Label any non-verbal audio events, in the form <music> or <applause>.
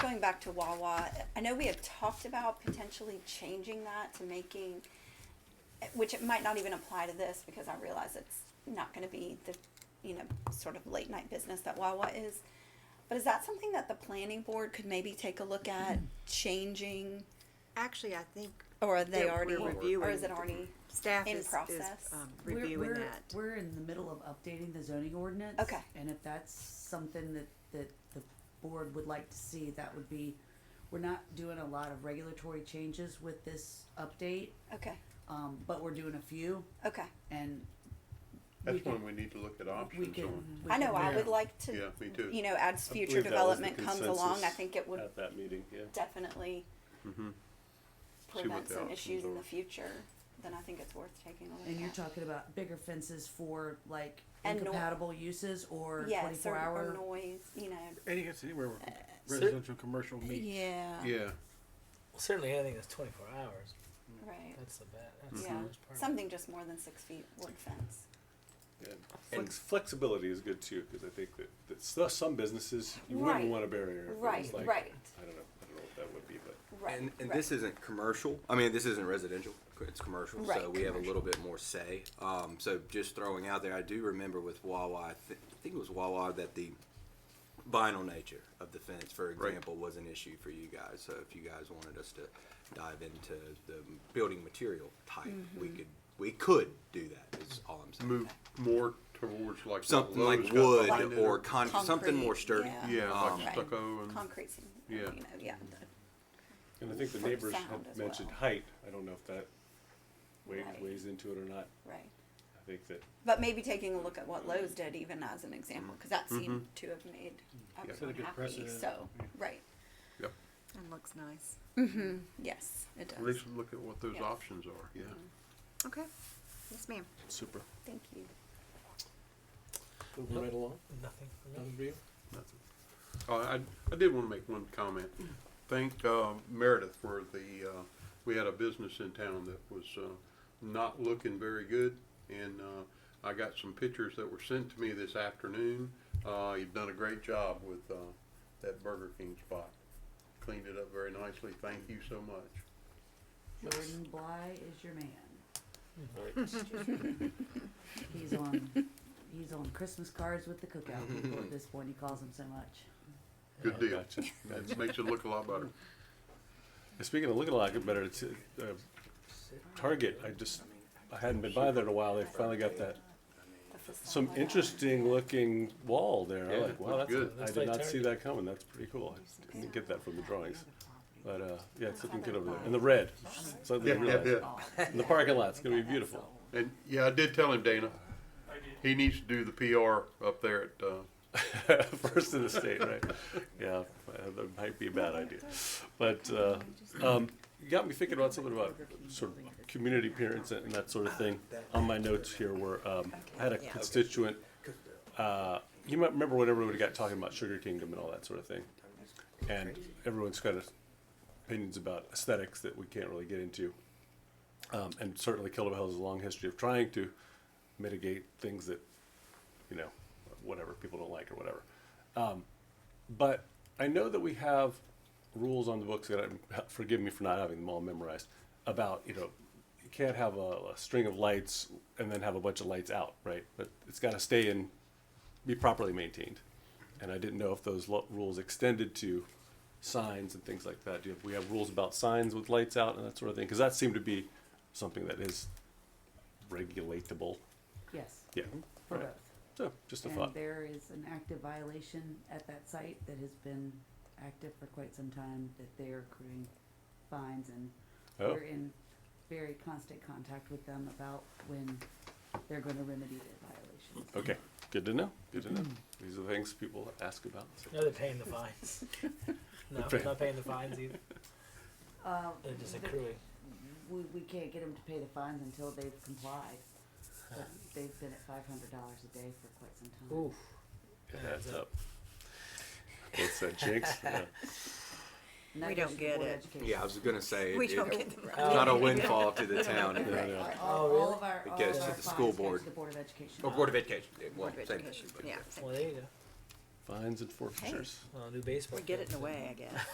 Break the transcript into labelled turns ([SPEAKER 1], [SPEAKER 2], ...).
[SPEAKER 1] back to Wawa, I know we had talked about potentially changing that to making, which it might not even apply to this because I realize it's not gonna be the, you know, sort of late night business that Wawa is. But is that something that the planning board could maybe take a look at changing,
[SPEAKER 2] Actually, I think
[SPEAKER 1] or are they
[SPEAKER 2] that
[SPEAKER 1] already,
[SPEAKER 2] we're
[SPEAKER 1] or is
[SPEAKER 2] reviewing
[SPEAKER 1] it already?
[SPEAKER 2] staff
[SPEAKER 1] In
[SPEAKER 2] is, is
[SPEAKER 1] process.
[SPEAKER 2] um,
[SPEAKER 3] We're-
[SPEAKER 2] reviewing
[SPEAKER 3] we're-
[SPEAKER 2] that.
[SPEAKER 3] We're in the middle of updating the zoning ordinance.
[SPEAKER 1] Okay.
[SPEAKER 3] And if that's something that, that the board would like to see, that would be, we're not doing a lot of regulatory changes with this update,
[SPEAKER 1] Okay,
[SPEAKER 3] um, but we're doing a few
[SPEAKER 1] okay.
[SPEAKER 3] and. we
[SPEAKER 4] That's
[SPEAKER 3] can-
[SPEAKER 4] when we need to look at
[SPEAKER 3] We
[SPEAKER 4] options
[SPEAKER 3] can.
[SPEAKER 4] on.
[SPEAKER 3] we
[SPEAKER 1] I know,
[SPEAKER 3] can-
[SPEAKER 1] I would like
[SPEAKER 4] Yeah,
[SPEAKER 1] to,
[SPEAKER 4] me too.
[SPEAKER 1] you know, as future
[SPEAKER 5] believe that was the
[SPEAKER 1] development comes along, I
[SPEAKER 5] consensus
[SPEAKER 1] think it would
[SPEAKER 5] At that meeting, yeah.
[SPEAKER 1] definitely
[SPEAKER 4] Mhm. what
[SPEAKER 1] prevent
[SPEAKER 4] the
[SPEAKER 1] some
[SPEAKER 4] options
[SPEAKER 1] issues in
[SPEAKER 4] are.
[SPEAKER 1] the future, then I think it's worth taking a
[SPEAKER 3] And
[SPEAKER 1] look
[SPEAKER 3] you're
[SPEAKER 1] at.
[SPEAKER 3] talking about bigger fences for like
[SPEAKER 1] And nor-
[SPEAKER 3] incompatible uses or
[SPEAKER 1] Yes,
[SPEAKER 3] twenty-four
[SPEAKER 1] or, or
[SPEAKER 3] hour?
[SPEAKER 1] noise, you know.
[SPEAKER 6] Any, it's anywhere where residential, commercial meet.
[SPEAKER 1] Yeah.
[SPEAKER 4] Yeah,
[SPEAKER 7] Well, certainly anything that's 24 hours.
[SPEAKER 1] Right,
[SPEAKER 7] That's the bad. That's
[SPEAKER 1] yeah,
[SPEAKER 7] the worst part.
[SPEAKER 1] something just more than six feet wood fence.
[SPEAKER 5] Flex, flexibility is good too, because I think that, that s- some businesses, you wouldn't
[SPEAKER 1] Right.
[SPEAKER 5] want a barrier. if it was
[SPEAKER 1] Right,
[SPEAKER 5] like-
[SPEAKER 1] right.
[SPEAKER 5] I don't know, I don't know what that would be, but.
[SPEAKER 1] Right,
[SPEAKER 8] And, and
[SPEAKER 1] right.
[SPEAKER 8] this isn't commercial. I mean, this isn't residential. It's commercial,
[SPEAKER 1] Right,
[SPEAKER 8] so we have a little bit more say. Um, so just throwing out there, I do remember with Wawa. I, th- I think it was Wawa that the vinyl nature of the fence, for
[SPEAKER 4] Right.
[SPEAKER 8] example, was an issue for you guys. So if you guys wanted us to dive into the building material type,
[SPEAKER 1] Mm-hmm.
[SPEAKER 8] we could we could do that. Is all I'm saying.
[SPEAKER 4] move more towards like. what
[SPEAKER 8] Something like
[SPEAKER 4] Lowe's got
[SPEAKER 8] wood
[SPEAKER 4] behind it
[SPEAKER 8] or con- something
[SPEAKER 1] Concrete,
[SPEAKER 8] more sturdy. Um,
[SPEAKER 1] yeah.
[SPEAKER 4] Yeah,
[SPEAKER 1] Right.
[SPEAKER 4] like stucco and,
[SPEAKER 1] Concrete, seem- you
[SPEAKER 4] Yeah.
[SPEAKER 1] know, yeah,
[SPEAKER 5] And I think the
[SPEAKER 1] For
[SPEAKER 5] neighbors
[SPEAKER 1] sound as
[SPEAKER 5] had mentioned
[SPEAKER 1] well.
[SPEAKER 5] height. I don't know if that weighs,
[SPEAKER 1] Right.
[SPEAKER 5] weighs into it or not.
[SPEAKER 1] right.
[SPEAKER 5] I think that
[SPEAKER 1] But maybe taking a look at what Lowe's did even as an example, cause that seemed to have made
[SPEAKER 6] Set a
[SPEAKER 1] everyone
[SPEAKER 6] good
[SPEAKER 1] happy,
[SPEAKER 6] precedent.
[SPEAKER 1] so, right,
[SPEAKER 4] yep,
[SPEAKER 2] And looks nice.
[SPEAKER 3] Mm-hmm.
[SPEAKER 1] yes, it
[SPEAKER 4] at
[SPEAKER 1] does,
[SPEAKER 4] least look at what those
[SPEAKER 1] Yeah.
[SPEAKER 4] options are, yeah.
[SPEAKER 2] Okay. Yes, ma'am.
[SPEAKER 5] super.
[SPEAKER 1] thank you.
[SPEAKER 5] Moving right along.
[SPEAKER 7] Nothing for me.
[SPEAKER 5] Nothing for you?
[SPEAKER 4] Nothing. Uh, I, I did wanna make one comment. Thank, uh, Meredith for the, uh, we had a business in town that was, uh, not looking very good. And, uh, I got some pictures that were sent to me this afternoon. Uh, you've done a great job with, uh, that Burger King spot. Cleaned it up very nicely. Thank you so much.
[SPEAKER 3] Jordan Bly is your man.
[SPEAKER 5] Alright.
[SPEAKER 3] He's on, he's on Christmas cards with the cookout people at this point. He calls them so much.
[SPEAKER 4] Good
[SPEAKER 5] Yeah,
[SPEAKER 4] deal.
[SPEAKER 5] gotcha.
[SPEAKER 4] That makes it look a lot better.
[SPEAKER 5] Speaking of looking a lot better, it's, uh, Target, I just, I hadn't been by there in a while. They finally got that,
[SPEAKER 1] The facade.
[SPEAKER 5] some interesting looking wall there.
[SPEAKER 4] Yeah,
[SPEAKER 5] I like, wow,
[SPEAKER 4] looks
[SPEAKER 5] that's,
[SPEAKER 4] good.
[SPEAKER 5] I
[SPEAKER 7] Looks
[SPEAKER 5] did
[SPEAKER 7] like
[SPEAKER 5] not see
[SPEAKER 7] Target.
[SPEAKER 5] that coming. That's pretty cool. I didn't get that from the drawings. But, uh, yeah, it's looking good over there.
[SPEAKER 3] Otherwise-
[SPEAKER 5] And the red, slightly
[SPEAKER 4] Yeah, yeah,
[SPEAKER 5] red.
[SPEAKER 4] yeah.
[SPEAKER 5] And the parking lot's gonna be beautiful.
[SPEAKER 4] And, yeah, I did tell him, Dana. He needs to do the PR up there at, uh,
[SPEAKER 5] <laughs> First in the state, right? Yeah, uh, that might be a bad idea. But uh, um, you got me thinking about something about sort of community appearance and that sort of thing. On my notes here were, um, I had a constituent, uh, you might remember when everybody got talking about Sugar Kingdom and all that sort of thing. And everyone's got opinions about aesthetics that we can't really get into. Um, and certainly Kilda Hill has a long history of trying to mitigate things that you know, whatever people don't like or whatever. Um, but I know that we have rules on the books that I'm, <laughs> forgive me for not having them all memorized about, you know, you can't have a, a string of lights and then have a bunch of lights out, right? But it's got to stay and be properly maintained. And I didn't know if those lo- rules extended to signs and things like that. Do you have, we have rules about signs with lights out and that sort of thing? Because that seemed to be something that is regulatable.
[SPEAKER 3] Yes,
[SPEAKER 5] Yeah.
[SPEAKER 3] for
[SPEAKER 5] Right.
[SPEAKER 3] both.
[SPEAKER 5] So just a
[SPEAKER 3] Mm-hmm. And
[SPEAKER 5] thought.
[SPEAKER 3] there is an active violation at that site that has been active for quite some time, that they are accruing fines, and
[SPEAKER 5] Oh.
[SPEAKER 3] we're in very constant contact with them about when they're gonna remedy their violations.
[SPEAKER 5] Okay, good to know. Good to know. These are the things people ask about.
[SPEAKER 7] No, they're paying the fines. no, they're not paying the fines either.
[SPEAKER 2] Um,
[SPEAKER 3] Uh,
[SPEAKER 7] They're just
[SPEAKER 3] th-
[SPEAKER 7] accruing.
[SPEAKER 3] we, we can't get them to pay the fines until they've complied. But They've been at five hundred dollars a day for quite some time.
[SPEAKER 7] Ooh.
[SPEAKER 5] It adds up. What's that, jinx? <laughs> Yeah.
[SPEAKER 3] And that
[SPEAKER 2] We
[SPEAKER 3] goes
[SPEAKER 2] don't
[SPEAKER 3] to the
[SPEAKER 2] get
[SPEAKER 3] Board of
[SPEAKER 2] it.
[SPEAKER 3] Education.
[SPEAKER 8] Yeah, I was gonna say
[SPEAKER 2] We
[SPEAKER 8] it-
[SPEAKER 2] don't
[SPEAKER 8] it-
[SPEAKER 2] get the
[SPEAKER 8] it's not a windfall to the town.
[SPEAKER 3] Right,
[SPEAKER 5] Yeah, yeah.
[SPEAKER 3] right.
[SPEAKER 7] Oh,
[SPEAKER 3] All, all
[SPEAKER 7] really? Oh,
[SPEAKER 3] of our,
[SPEAKER 8] It
[SPEAKER 3] all of
[SPEAKER 8] goes to
[SPEAKER 3] our
[SPEAKER 8] the
[SPEAKER 3] fines
[SPEAKER 8] school
[SPEAKER 3] go to
[SPEAKER 8] board.
[SPEAKER 3] the Board of Education.
[SPEAKER 8] Or Board of Education. Well,
[SPEAKER 2] Board of
[SPEAKER 8] same thing,
[SPEAKER 2] Education.
[SPEAKER 8] but
[SPEAKER 2] Yeah.
[SPEAKER 7] Well, there you go.
[SPEAKER 5] Fines and forfeitures.
[SPEAKER 7] Well, new baseball.
[SPEAKER 2] We get
[SPEAKER 7] field,
[SPEAKER 2] it in a
[SPEAKER 7] so-
[SPEAKER 2] way, I guess.